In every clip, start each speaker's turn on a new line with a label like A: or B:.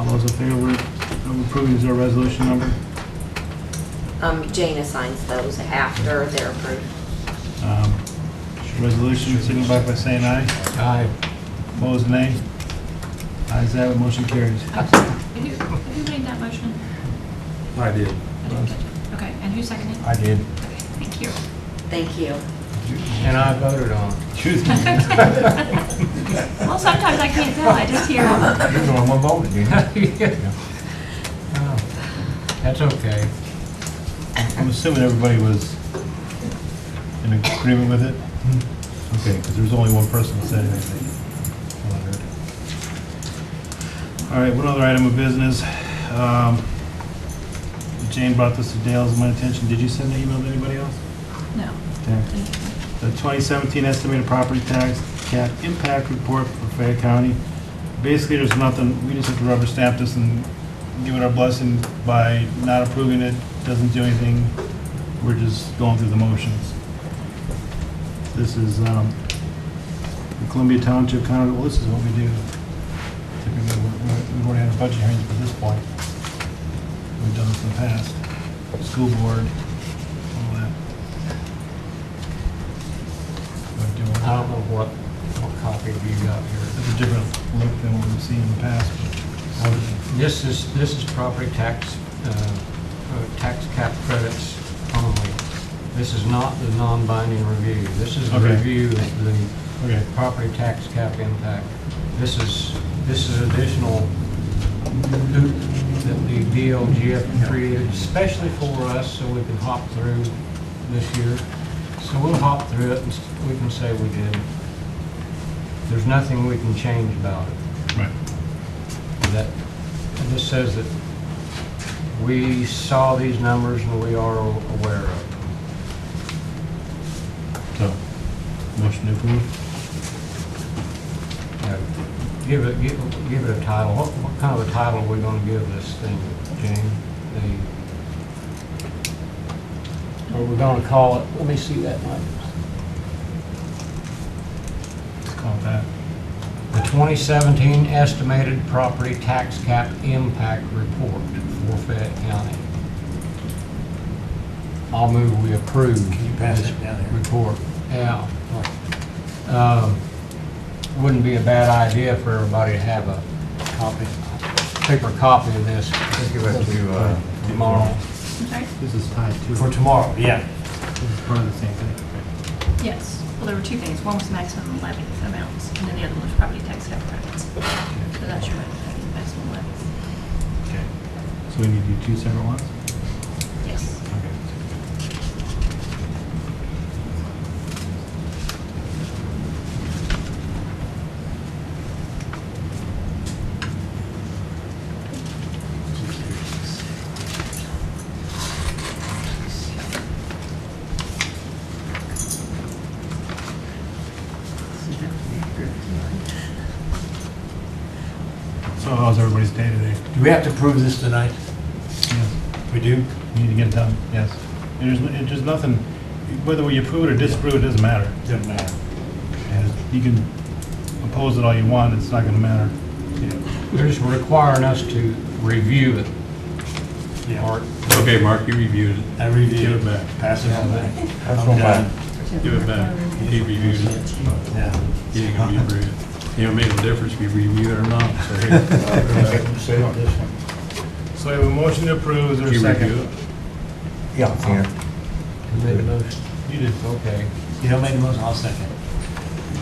A: All those in favor of approving, is there a resolution number?
B: Um, Jane assigns those after they're approved.
A: Um, should Resolution, signify by saying aye.
C: Aye.
A: Opposed, nay. Ayes have it, motion carries.
D: Who who made that motion?
C: I did.
D: I didn't catch it. Okay, and who seconded?
C: I did.
D: Okay, Thank you.
B: Thank you.
C: And I voted on it.
A: Excuse me.
D: Well, sometimes I can't tell, I just hear.
C: You're the one who voted, you know? Oh, That's okay.
A: I'm assuming everybody was in agreement with it? Okay, because there was only one person that said anything. All right, one other item of business. Um, Jane brought this to Dale's my attention. Did you send an email to anybody else?
D: No.
A: Okay. The 2017 estimated property tax cap impact report for Fayette County. Basically, there's nothing, we just have to rubber stamp this and give it our blessing by not approving it, doesn't do anything. We're just going through the motions. This is um, the Columbia Township County, well, this is what we do. Typically, we- we- we've already had a budget hearing at this point. We've done this in the past. School board, all that. We're doing-
C: I don't know what, what copy you got here.
A: It's a different look than what we've seen in the past.
C: Um, This is, this is property tax, uh, uh, tax cap credits only. This is not the non-binding review. This is the
A: Okay.
C: review of the
A: Okay.
C: property tax cap impact. This is, this is additional hoop that the DLGF created especially for us, so we can hop through this year. So we'll hop through it, and s- we can say we did. There's nothing we can change about it
A: Right.
C: that, and this says that we saw these numbers and we are aware of them.
A: So, motion to approve?
C: Now, Give it, give give it a title. What, what kind of a title are we gonna give this thing, Jane? The, or we're gonna call it, let me see that, Mike.
A: Let's call it that.
C: The 2017 Estimated Property Tax Cap Impact Report for Fayette County. I'll move we approve. Can you pass it down here? Report, yeah. Um, Wouldn't be a bad idea for everybody to have a copy, paper copy of this. Give it to, uh, tomorrow.
D: I'm sorry?
A: This is tied to,
C: For tomorrow, yeah.
A: this is part of the same thing.
D: Yes. Well, there were two things. One was maximum levy amounts, and then the other one was property tax cap credits. So that's your maximum levies.
A: Okay. So we need to do two separate ones?
D: Yes.
A: Okay. So how's everybody's day today?
E: Do we have to prove this tonight?
A: Yes.
E: We do?
A: We Need to get it done, yes. There's, it- there's nothing, whether we approve it or disapprove it, doesn't matter.
E: Doesn't matter.
A: And You can oppose it all you want, it's not gonna matter.
C: They're just requiring us to review it.
E: Yeah.
C: Art,
F: Okay, Mark, you reviewed it.
E: I reviewed it.
F: Give it back.
E: Pass it on back.
C: That's
E: I'm
C: all
E: done.
F: Give it back. He reviewed it.
E: Yeah.
F: He ain't gonna be rude. You know, it made a difference if you review it or not, so here.
E: Say on this one.
A: So I have a motion to approve, is there a
F: You
A: second?
F: review it?
E: Yeah. Here.
C: Who made the motion?
A: You did.
C: Okay.
E: You don't make the motion, I'll second.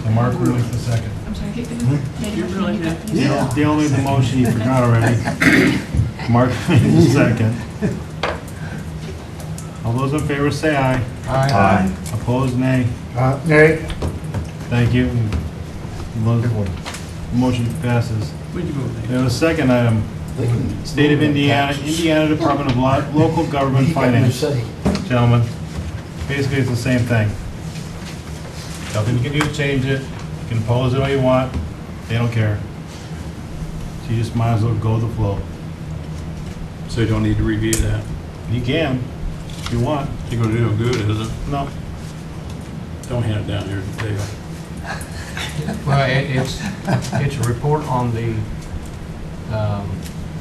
A: And Mark will make the second.
D: I'm sorry. who- who made a motion? You got- you
E: Yeah.
A: The only the motion you forgot already. Mark made the second. All those in favor say aye.
C: Aye.
A: Opposed, nay.
E: Nay.
A: Thank you. Mo- Motion passes.
F: Where'd you go
A: We have a second item. State of Indiana, Indiana Department of Lo- Local Government Finance. Gentlemen, basically it's the same thing. Nothing you can do to change it, you can oppose it all you want, they don't care. So you just might as well go with the flow.
F: So you don't need to review that.
A: You can, if you want,
F: You're gonna do no good, is it?
A: no.
F: Don't hand it down here to Dale.
C: Well, it- it's, it's a report on the um,